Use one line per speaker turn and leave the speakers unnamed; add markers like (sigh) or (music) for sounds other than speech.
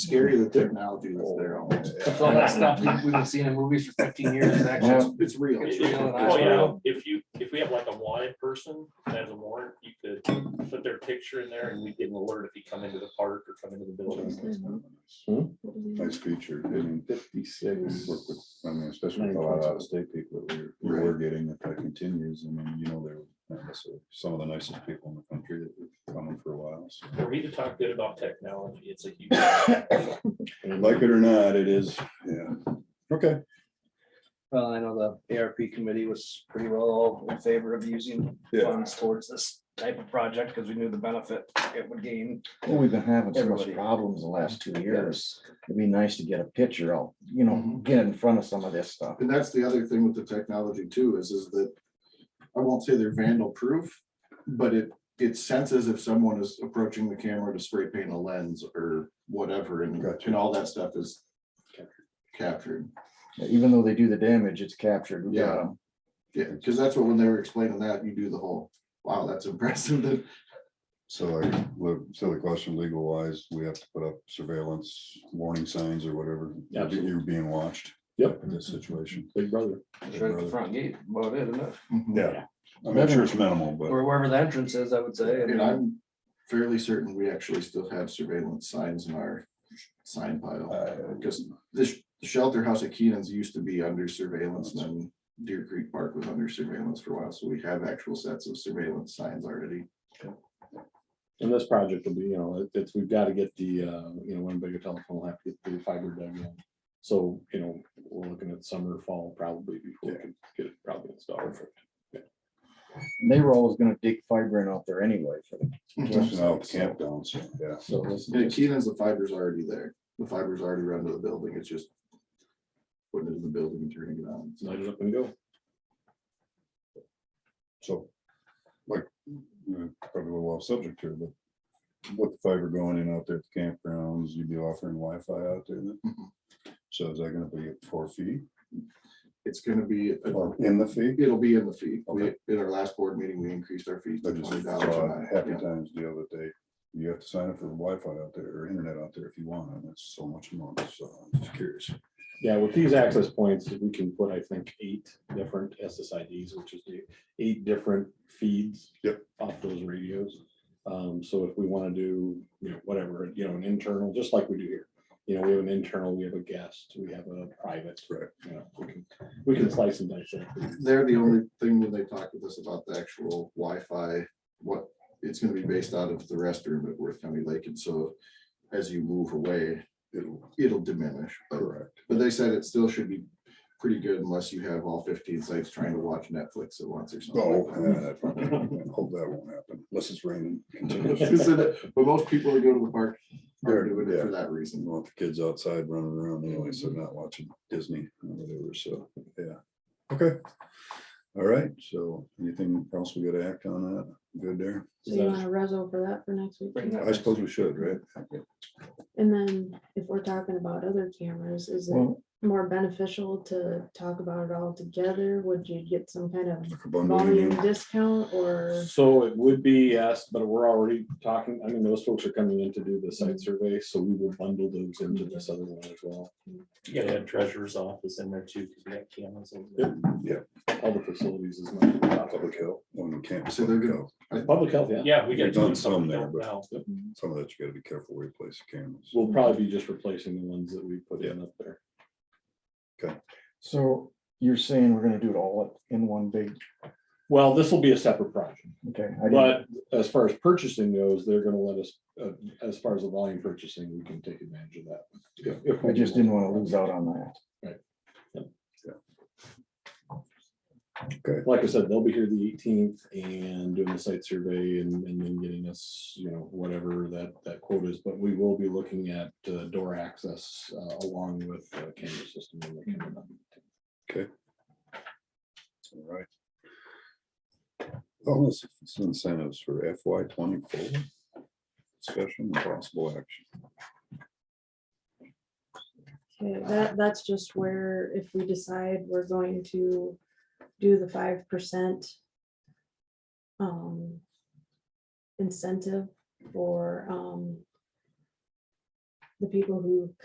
Scary that technology is there.
It's all that stuff we- we've been seeing in movies for fifteen years, is actually,
It's it's real.
It's real.
Oh,
Well, you know, if you, if we have like a wanted person that has a warrant, you could put their picture in there and we get an alert if you come into the park or come into the building.
Hmm? Nice feature, and
Fifty-six.
work with, I mean, especially with a lot of out-of-state people that we're, we we're getting, if that continues, I mean, you know, they're not necessarily some of the nicest people in the country that we've known for a while. so.
For me to talk good about technology, it's a huge.
Like it or not, it is, yeah, okay.
well, I know the ARP committee was pretty well all in favor of using
Yeah.
funds towards this type of project, because we knew the benefit it would gain.
Well, we've been having so much
Everybody.
problems the last two years. It'd be nice to get a picture out, you know, get in front of some of this stuff.
And that's the other thing with the technology too, is, is that I won't say they're vandal proof, but it, it senses if someone is approaching the camera to spray paint a lens or whatever and,
Gotcha.
and all that stuff is captured.
Even though they do the damage, it's captured. We got
Yeah.
'em.
Yeah, because that's what, when they were explaining that, you do the whole, wow, that's impressive. (laughs) that-
So like, look, silly question, legal wise, we have to put up surveillance warning signs or whatever, You're be- you're being watched.
Yep.
In this situation.
Big brother.
It's right at the front gate, about it, isn't it?
Mm-hmm.
Yeah. I'm sure it's minimal, but.
Or wherever the entrance is, I would say. I
And
mean,
I'm fairly certain we actually still have surveillance signs in our sign pile.
uh,
Because this the shelter house at Keenan's used to be under surveillance and then Deer Creek Park was under surveillance for a while. So we have actual sets of surveillance signs already.
And this project will be, you know, it- it's, we've got to get the, uh, you know, one bigger telephone will have to get the fiber dug in. So, you know, we're looking at summer, fall probably before we can get it probably installed.
And They were always gonna dig fiber in out there anyway for the
Especially now with the campgrounds, so, yeah.
So this
Yeah,
is just-
Keenan's, the fiber's already there. The fiber's already run to the building. It's just putting it in the building and turning it on.
light it up and go.
So, like, uh, probably a little off subject here, but with the fiber going in out there at the campgrounds, you'd be offering Wi-Fi out there then?
Mhm.
So is that gonna be at four feet
It's gonna be, a-
or in the fee?
it'll be in the fee. We,
Okay.
in our last board meeting, we increased our fees
I
to
just
twenty
saw a
dollars.
happy times deal that they, you have to sign up for Wi-Fi out there or internet out there if you want, and it's so much a month, so I'm just curious.
Yeah, with these access points, we can put, I think, eight different SSIDs, which is the eight different feeds.
Yep.
Off those radios. Um, so if we want to do, you know, whatever, you know, an internal, just like we do here. You know, we have an internal, we have a guest, we have a private.
Right.
You know, we can, we can slice and dice it.
They're the only thing when they talk with us about the actual Wi-Fi, what, it's gonna be based out of the restroom at Worth County Lake, and so as you move away, it'll, it'll diminish. But
Correct.
but they said it still should be pretty good unless you have all fifteen sites trying to watch Netflix at once or
Oh,
something.
yeah, that (laughs) probably- I hope that won't happen unless it's (laughs) raining.
(laughs) She said that- But most people that go to the park are
They're-
doing it
yeah.
for that
You
reason.
want the kids outside running around anyway, so not watching Disney or whatever, so, yeah. Okay. All right, so anything else we gotta act on that? Good there?
Is
So
that-
you
want a reso for that for next week.
Bring that
I suppose we should, right?
And then if we're talking about other cameras, is it
Well-
more beneficial to talk about it all together? Would you get some kind of
Like a bundle, you
volume
mean?
discount or?
So it would be, yes, but we're already talking, I mean, those folks are coming in to do the site survey, so we will bundle those into this other one as well.
You gotta have treasurer's office in there too, because we got cameras. over there.
All the facilities is not.
Public health, on campus.
So they're
public
good.
health.
Public health, yeah.
Yeah, we got.
We've done
two
some there,
now.
Some of that you gotta be careful where you place the cameras.
We'll probably be just replacing the ones that we put in up there.
So you're saying we're gonna do it all in one big,
Well, this will be a separate project,
okay. I didn't-
but as far as purchasing goes, they're gonna let us, uh, as far as the volume purchasing, we can take advantage of that. if- if
I
we
just
want.
didn't wanna lose out on that.
Like I said, they'll be here the eighteenth and doing the site survey and, and then getting us, you know, whatever that, that quote is, but we will be looking at uh, door access uh, along with uh, camera system. when they come in.
All right. Oh, this is incentives for FY twenty-four. Special and possible action.
Okay, that, that's just where if we decide we're going to do the five percent um, incentive for um, the people who